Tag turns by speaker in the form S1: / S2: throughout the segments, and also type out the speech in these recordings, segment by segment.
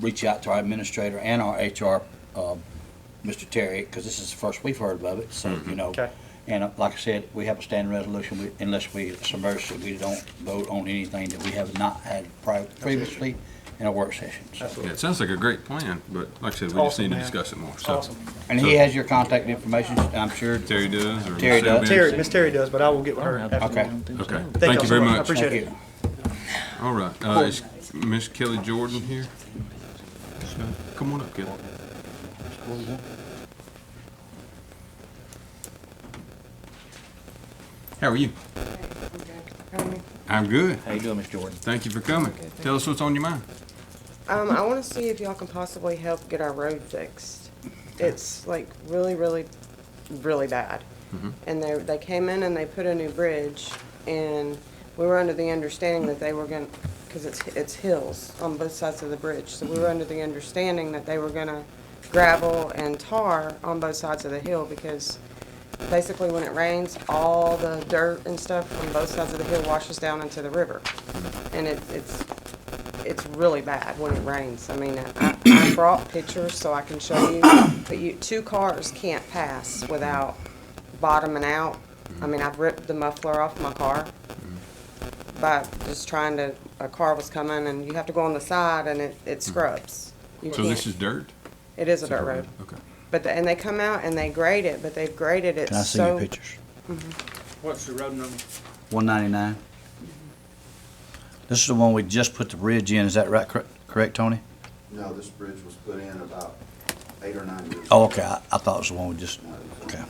S1: reach out to our administrator and our HR, uh, Mr. Terry, because this is the first we've heard of it, so, you know.
S2: Okay.
S1: And uh, like I said, we have a standing resolution, we- unless we, it's emergency, we don't vote on anything that we have not had pri- previously in a work session. so.
S2: Absolutely.
S3: Yeah, it sounds like a great plan, but like I said, we just
S2: Awesome,
S3: need to
S2: man.
S3: discuss it more, so.
S2: Awesome.
S1: And he has your contact information, I'm sure.
S3: Terry does, or?
S1: Terry
S3: Sarah
S1: does.
S3: Benz?
S2: Terry, Miss Terry does, but I will get with her after.
S1: Okay.
S3: Okay,
S2: Thank
S3: thank
S2: y'all
S3: you
S2: so
S3: very
S2: much. I
S3: much.
S2: appreciate
S1: Thank
S2: it.
S1: you.
S3: All right, uh, is Miss Kelly Jordan here? Come on up, Kelly. How are you? I'm good.
S4: How you doing, Miss Jordan?
S3: Thank you for coming.
S4: Okay, thank
S3: Tell us what's on your mind.
S5: Um, I want to see if y'all can possibly help get our road fixed. It's like really, really, really bad. And they, they came in and they put a new bridge and we were under the understanding that they were gonna, because it's, it's hills on both sides of the bridge. So we were under the understanding that they were gonna gravel and tar on both sides of the hill because basically when it rains, all the dirt and stuff from both sides of the hill washes down into the river. And it, it's it's really bad when it rains. I mean, I, I brought pictures so I can show you, but you, two cars can't pass without bottoming out. I mean, I've ripped the muffler off my car by just trying to, a car was coming and you have to go on the side and it, it scrubs. You
S3: So this is
S5: can't-
S3: dirt?
S5: It is a dirt road.
S3: Okay.
S5: But, the- and they come out and they grade it, but they've graded it
S1: Can I see your
S5: so.
S1: pictures?
S2: What's the road number?
S1: One ninety-nine.
S2: Mm-hmm.
S1: This is the one we just put the bridge in, is that right, cor- correct, Tony?
S6: No, this bridge was put in about eight or nine years.
S1: Oh,
S6: ago.
S1: okay, I, I thought it was the one we just,
S6: No, it was-
S1: okay.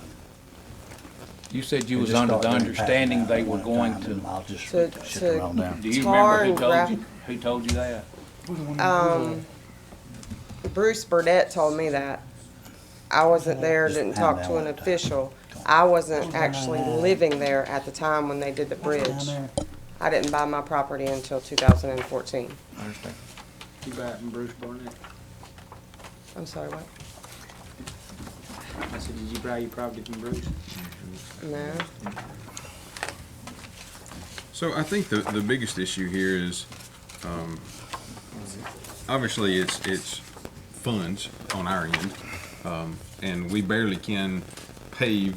S4: You said you
S1: We
S4: was
S1: just
S4: under the
S1: thought they'd
S4: understanding
S1: pass
S4: they
S1: that
S4: were
S1: one
S4: going
S1: time,
S4: to,
S1: and I'll just
S5: to-
S1: sit
S5: to-
S1: around down.
S4: do you
S5: Tar
S4: remember who
S5: and
S4: told
S5: graph-
S4: you, who told you that?
S5: Um, Bruce Burdette told me that. I wasn't there, didn't talk to an official. I wasn't actually living there at the time when they did the bridge. I didn't buy my property until two thousand and fourteen.
S4: I understand.
S2: You back from Bruce Barnett?
S5: I'm sorry, what?
S2: I said, did you buy your property from Bruce?
S5: No,
S3: So I think the, the biggest issue here is, um, obviously it's, it's funds on our end. Um, and we barely can pave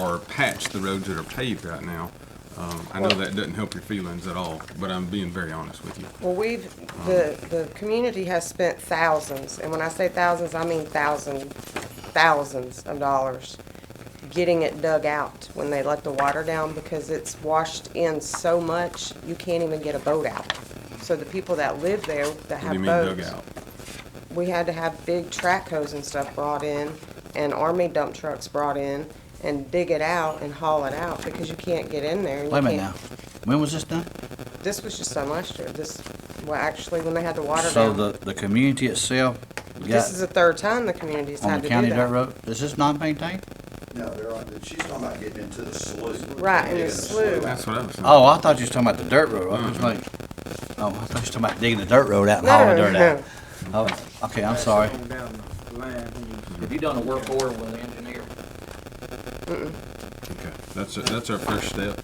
S3: or patch the roads that are paved right now. Um, I know that doesn't help your feelings at all, but I'm being very honest with you.
S5: well, we've, the, the community has spent thousands, and when I say thousands, I mean thousand, thousands of dollars getting it dug out when they let the water down because it's washed in so much, you can't even get a boat out. So the people that live there that
S3: What do you
S5: have
S3: mean
S5: boats.
S3: dug out?
S5: we had to have big track hoes and stuff brought in and army dump trucks brought in and dig it out and haul it out because you can't get in there. and you
S1: Wait a minute now,
S5: can't-
S1: when was this done?
S5: This was just done last year. This, well, actually, when they had the water
S1: So
S5: down.
S1: the, the community itself
S5: This
S1: got
S5: is the third time the community's
S1: on
S5: had
S1: the
S5: to do
S1: county dirt
S5: that.
S1: road, is this not maintained?
S6: No, they're on, she's talking about getting into the slough.
S5: Right, in the
S6: Digging
S5: slough.
S3: That's what I was saying.
S1: Oh, I thought you was talking about the dirt road, I was like, oh, I thought you was talking about digging the dirt road out and
S5: No,
S1: hauling dirt
S5: no,
S1: out. Oh, okay, I'm sorry.
S2: Pass it on down the line when you-
S4: Have you done a work order with the engineer?
S3: Okay, that's, that's our first step,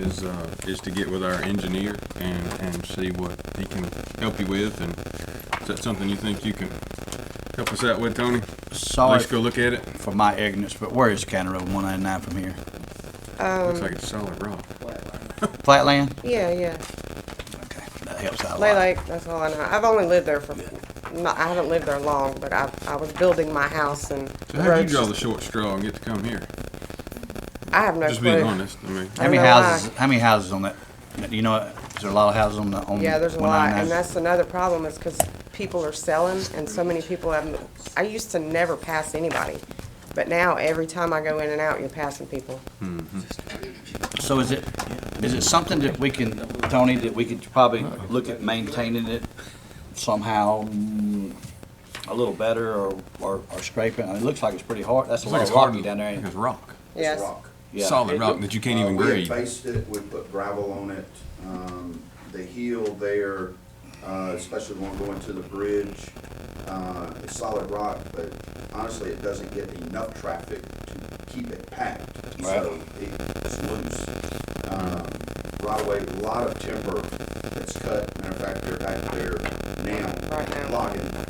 S3: is, uh, is to get with our engineer and, and see what he can help you with, and is that something you think you can help us out with, Tony?
S1: Sorry
S3: Let's go look at it.
S1: for my ignorance, but where is County Road one ninety-nine from here?
S3: Looks like it's solid rock.
S1: Flatland?
S5: yeah, yeah.
S1: Okay, that helps out a lot.
S5: Lay Lake, that's all I know. I've only lived there for, not, I haven't lived there long, but I, I was building my house and.
S3: So how do you
S5: roads
S3: draw the
S5: just-
S3: short straw and get to come here?
S5: I have no
S3: Just being
S5: clue.
S3: honest, I mean,
S1: How many
S5: I don't know
S1: houses? How many houses on that? You know, is there a lot of houses on the on? oh
S5: Yeah, there's a lot,
S1: 199?
S5: and that's another problem is because people are selling and so many people have, I used to never pass anybody. But now every time I go in and out, you're passing people.
S1: So is it is it something that we can, Tony, that we could probably look at maintaining it somehow mm, a little better or or, or scraping? I mean, it looks like it's pretty hard. That's a lot
S3: it's like it's
S1: of
S3: hard
S1: hockey
S3: to,
S1: down there. ain't
S3: it's
S1: it?
S3: rock.
S5: Yes.
S6: It's rock.
S1: Yeah.
S3: Solid rock that you can't even
S6: Uh, we
S3: grade.
S6: had faced it, we put gravel on it, um, the hill there, uh, especially the one going to the bridge, uh, it's solid rock, but honestly, it doesn't get enough traffic to keep it packed, so
S1: Right.
S6: it- it's loose. Um, right away, a lot of timber that's cut, matter of fact, they're back there now.
S5: Right now.
S6: Logging,